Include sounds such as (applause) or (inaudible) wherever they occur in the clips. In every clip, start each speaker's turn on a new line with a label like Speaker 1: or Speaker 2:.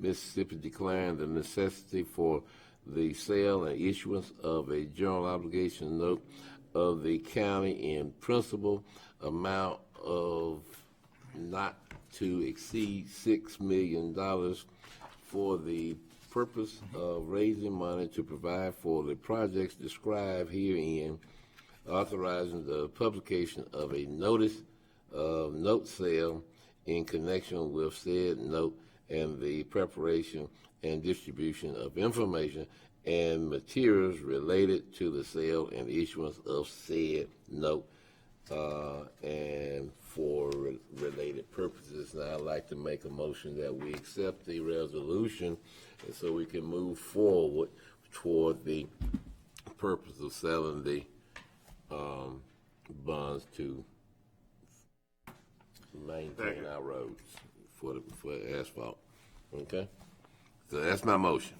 Speaker 1: Mississippi declined the necessity for the sale and issuance of a general obligation note of the county in principal amount of not to exceed six million dollars for the purpose of raising money to provide for the projects described herein, authorizing the publication of a notice of um, note sale in connection with said note and the preparation and distribution of information and materials related to the sale and issuance of said note uh, and for re- related purposes. Now, I'd like to make a motion that we accept the resolution and so we can move forward toward the purpose of selling the um, bonds to maintain our roads for, the for asphalt. Okay? So that's my motion.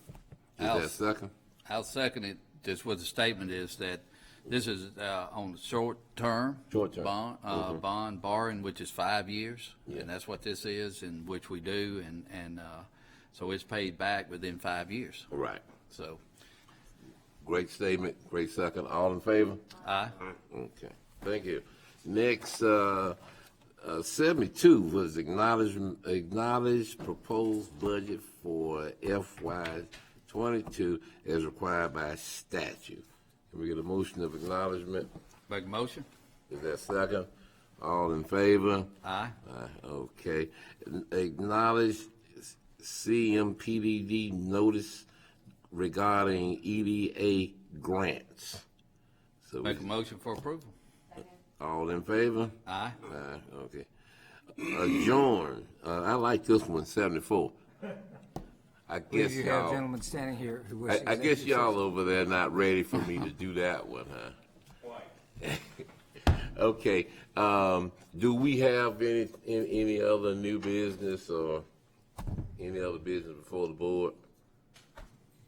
Speaker 1: Is
Speaker 2: I'll
Speaker 1: that
Speaker 2: s-
Speaker 1: second?
Speaker 2: I'll second it, just what the statement is, that this is uh, on short-term.
Speaker 1: Short-term.
Speaker 2: Bond, uh, bond borrowing, which is five years,
Speaker 1: Yeah.
Speaker 2: and that's what this is, and which we do, and, and uh, so it's paid back within five years.
Speaker 1: All right.
Speaker 2: So,
Speaker 1: Great statement, great second. All in favor?
Speaker 2: aye,
Speaker 1: Okay, thank you. Next, uh, uh, seventy-two was acknowledge, acknowledge proposed budget for FY twenty-two as required by statute. Can we get a motion of acknowledgement?
Speaker 2: make a motion?
Speaker 1: Is that second? All in favor?
Speaker 2: Aye,
Speaker 1: Uh, Okay. Acknowledge CMPDD notice regarding EDA grants. So, we-
Speaker 2: make a motion for approval?
Speaker 1: all in favor?
Speaker 2: Aye,
Speaker 1: Aye, Uh, okay. Adjourn, uh, I like this one, seventy-four. I
Speaker 3: believe
Speaker 1: guess
Speaker 3: you have
Speaker 1: y'all,
Speaker 3: gentlemen standing here who wish.
Speaker 1: I, I guess
Speaker 3: executive
Speaker 1: y'all over there not ready for me to do that one, huh? (laughs) Okay, um, do we have any, any, any other new business or any other business before the board?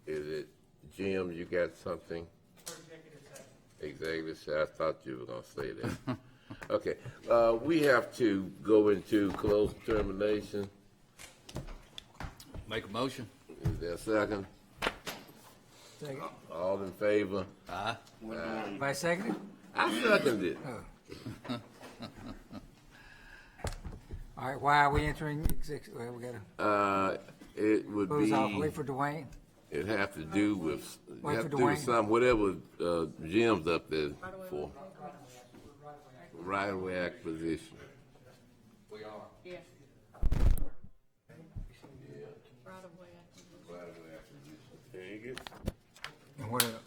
Speaker 1: Is it, Jim, you got something? Exactly, so I thought you were gonna say that. Okay, uh, we have to go into closed determination.
Speaker 2: make a motion?
Speaker 1: Is there a second?
Speaker 3: session.
Speaker 1: All in favor?
Speaker 2: Aye,
Speaker 3: Second. By second?
Speaker 1: I seconded it.
Speaker 3: All right, why are we entering exec, well, we gotta
Speaker 1: Uh, it would
Speaker 3: close off,
Speaker 1: be,
Speaker 3: wait for Dwayne.
Speaker 1: it'd have to do with, it'd
Speaker 3: Wait
Speaker 1: have
Speaker 3: for
Speaker 1: to do with
Speaker 3: Dwayne.
Speaker 1: some, whatever, uh, Jim's up there for. Right of way acquisition.
Speaker 4: right of way.
Speaker 1: Right of way acquisition. There you go.
Speaker 3: And what, el-